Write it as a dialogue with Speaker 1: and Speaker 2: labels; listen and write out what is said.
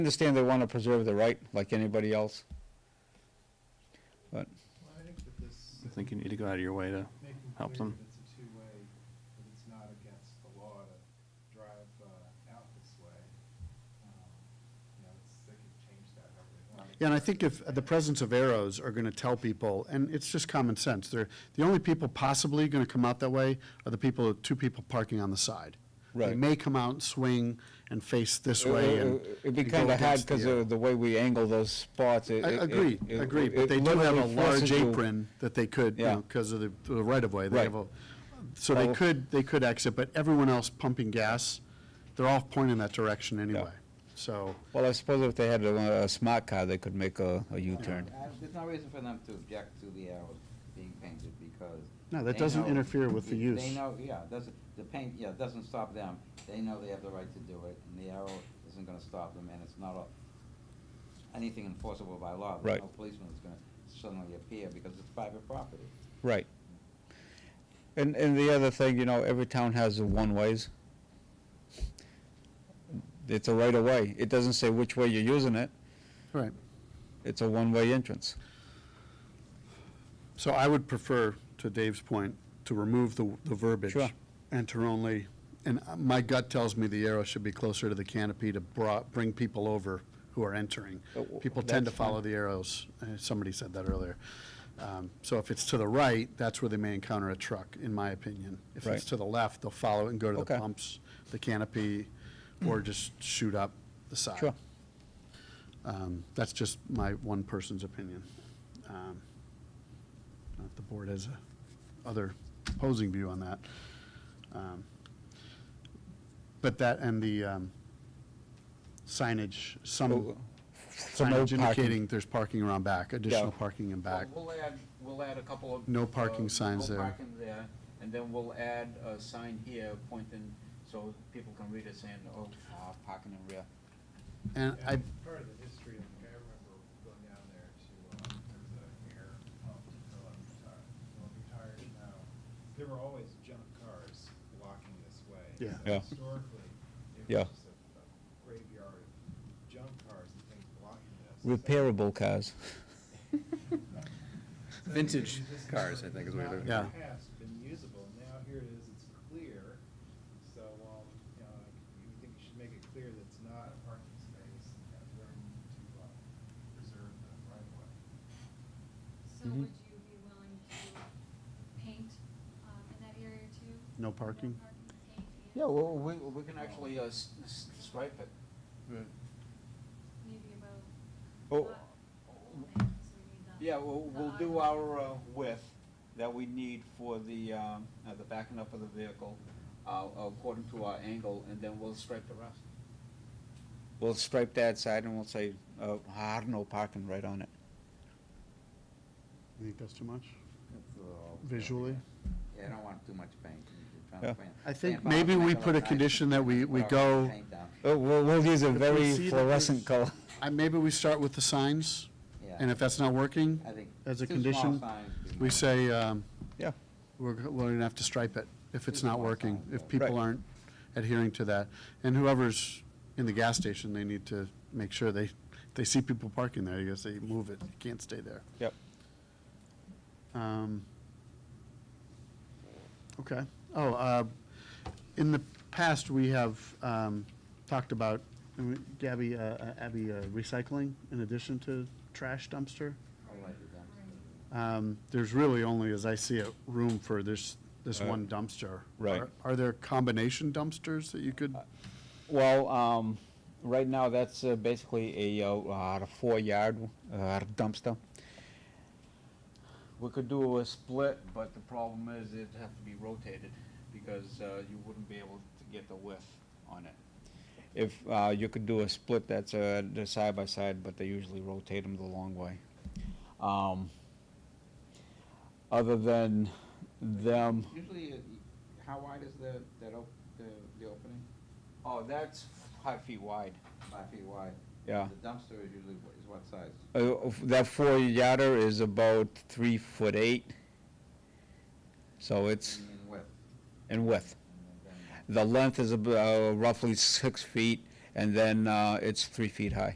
Speaker 1: Understand they want to preserve the right, like anybody else. But,
Speaker 2: Well, I think that this,
Speaker 3: I think you need to go out of your way to,
Speaker 2: making clear
Speaker 3: Helps
Speaker 2: that
Speaker 3: them.
Speaker 2: it's a two-way, that it's not against the law to drive uh, out this way. Um, You know, it's, they can change that however they want.
Speaker 4: Yeah, and I think if, the presence of arrows are going to tell people, and it's just common sense, they're, the only people possibly going to come out that way are the people, two people parking on the side. They
Speaker 1: Right. Uh,
Speaker 4: may come out and swing and face this way and.
Speaker 1: It- it- it'd be
Speaker 4: and go
Speaker 1: kind of hard
Speaker 4: against the
Speaker 1: because of
Speaker 4: arrow.
Speaker 1: the way we angle those spots. it-
Speaker 4: I-
Speaker 1: it-
Speaker 4: Agreed,
Speaker 1: it-
Speaker 4: agreed,
Speaker 1: uh, it
Speaker 4: but they do have a
Speaker 1: literally
Speaker 4: large
Speaker 1: forces you-
Speaker 4: apron that they could, you
Speaker 1: Yeah.
Speaker 4: know, because of the, the right of way, they have a,
Speaker 1: Right.
Speaker 4: so they
Speaker 1: Oh.
Speaker 4: could, they could exit, but everyone else pumping gas, they're all pointing that direction anyway, so.
Speaker 1: Well, I suppose if they had a, a smart car, they could make a, a U-turn.
Speaker 5: Uh, There's no reason for them to object to the arrows being painted because.
Speaker 4: No, that
Speaker 5: they
Speaker 4: doesn't
Speaker 5: know-
Speaker 4: interfere with the
Speaker 5: They
Speaker 4: use.
Speaker 5: know, yeah, doesn't, the paint, yeah, doesn't stop them. They know they have the right to do it and the arrow isn't gonna stop them and it's not a, anything enforceable by law. There's
Speaker 1: Right.
Speaker 5: No policeman is gonna suddenly appear because it's private property.
Speaker 1: Right. And, and the other thing, you know, every town has the one-ways. It's a right-of-way. It doesn't say which way you're using it.
Speaker 4: Right.
Speaker 1: It's a one-way entrance.
Speaker 4: So I would prefer, to Dave's point, to remove the, the verbiage.
Speaker 1: Sure.
Speaker 4: Enter only, and uh, my gut tells me the arrow should be closer to the canopy to bra, bring people over who are entering.
Speaker 1: Oh, w-
Speaker 4: People tend to
Speaker 1: that's fine.
Speaker 4: follow the arrows, Uh, somebody said that earlier. Um, So if it's to the right, that's where they may encounter a truck, in my opinion. If
Speaker 1: Right.
Speaker 4: it's to the left, they'll follow it and go to
Speaker 1: Okay.
Speaker 4: the pumps, the canopy, or just shoot up the side.
Speaker 1: Hmm. Sure.
Speaker 4: Um, That's just my one person's opinion. Um, not if the board has a other opposing view on that. Um, But that and the um, signage, some
Speaker 1: Oh, for no
Speaker 4: signage
Speaker 1: parking.
Speaker 4: indicating there's parking around back, additional
Speaker 1: Yeah.
Speaker 4: parking in back.
Speaker 6: Well, We'll add, we'll add a couple of.
Speaker 4: No Oh, parking
Speaker 6: uh,
Speaker 4: signs there.
Speaker 6: No parking there, and then we'll add a sign here pointing, so people can read it saying, oh, uh, parking in rear.
Speaker 4: And I,
Speaker 2: And Part of the history, of- I remember going down there to, um, there was um, an air pump to fill up the tire, well, the tires now. There were always junk cars blocking this way.
Speaker 4: Yeah.
Speaker 2: So
Speaker 1: Yeah.
Speaker 2: Historically, it
Speaker 1: Yeah.
Speaker 2: was just a a graveyard of junk cars and things blocking this. So-
Speaker 1: Repairable cars.
Speaker 2: so
Speaker 3: Vintage
Speaker 2: this is
Speaker 3: cars, I
Speaker 2: not-
Speaker 3: think is what you're
Speaker 2: not in
Speaker 4: looking
Speaker 2: the past been usable, now here it is, it's clear, so, um, you know, like, you would think you should make it clear that it's not a parking space, and have room to, uh, preserve the right of way.
Speaker 7: So
Speaker 1: Mhm.
Speaker 4: Mm-hmm.
Speaker 7: would you be willing to paint um, in that area too?
Speaker 4: No parking?
Speaker 7: paint and
Speaker 6: Yeah, well, we, we can actually uh, s- s- stripe it.
Speaker 7: Maybe about.
Speaker 1: Oh.
Speaker 7: lot length, so we need the-
Speaker 6: Yeah, we'll,
Speaker 7: the
Speaker 6: we'll do
Speaker 7: eye-
Speaker 6: our uh, width that we need for the, um, uh, the backing up of the vehicle, uh, according to our angle, and then we'll stripe the rest.
Speaker 1: We'll stripe that side and we'll say, uh, hard no parking right on it.
Speaker 4: you think that's too much
Speaker 5: It's, uh,
Speaker 4: visually?
Speaker 5: Yeah, I don't want too much paint. You're trying
Speaker 1: Yeah.
Speaker 5: to paint-
Speaker 4: I think
Speaker 5: paint bottles
Speaker 4: maybe
Speaker 5: make
Speaker 4: we
Speaker 5: look
Speaker 4: put a
Speaker 5: nice,
Speaker 4: condition that we- we
Speaker 5: put our
Speaker 4: go-
Speaker 5: paint down.
Speaker 1: Oh, we'll, we'll use a
Speaker 4: If we
Speaker 1: very
Speaker 4: see that
Speaker 1: fluorescent
Speaker 4: there's-
Speaker 1: color.
Speaker 4: I, maybe we start with the signs,
Speaker 5: Yeah.
Speaker 4: and if that's not working,
Speaker 5: I think
Speaker 4: as a
Speaker 5: two small
Speaker 4: condition,
Speaker 5: signs would be
Speaker 4: we
Speaker 5: more.
Speaker 4: say, um,
Speaker 1: Yeah.
Speaker 4: we're, g- we're gonna have to stripe it if it's not working, if people
Speaker 1: Right.
Speaker 4: aren't adhering to that. And whoever's in the gas station, they need to make sure they, they see people parking there, you gotta say, move it, you can't stay there.
Speaker 1: Yep.
Speaker 4: Um, Okay, oh, uh, in the past, we have, um, talked about, uh, Gabby, uh, uh, Abby, uh, recycling in addition to trash dumpster.
Speaker 5: I'll write it down.
Speaker 4: Um, There's really only, as I see it, room for this, this
Speaker 1: Uh,
Speaker 4: one dumpster.
Speaker 1: right.
Speaker 4: Are- Are there combination dumpsters that you could,
Speaker 1: Well, um, right now, that's uh, basically a, uh, uh, four-yard, uh, dumpster.
Speaker 6: We could do a split, but the problem is it'd have to be rotated because uh, you wouldn't be able to get the width on it.
Speaker 1: If, uh, you could do a split, that's, uh, they're side by side, but they usually rotate them the long way. Um, other than
Speaker 4: um,
Speaker 1: them,
Speaker 5: Usually, uh, how wide is the, that op, the, the opening?
Speaker 6: Oh, that's five feet wide.
Speaker 5: Five feet wide?
Speaker 1: Yeah.
Speaker 5: The dumpster is usually, wh- is what size?
Speaker 1: uh, that four-yarder is about three foot eight. So it's,
Speaker 5: In width?
Speaker 1: in width.
Speaker 5: and
Speaker 1: The
Speaker 5: then-
Speaker 1: length is ab- uh, roughly six feet, and then uh, it's three feet high.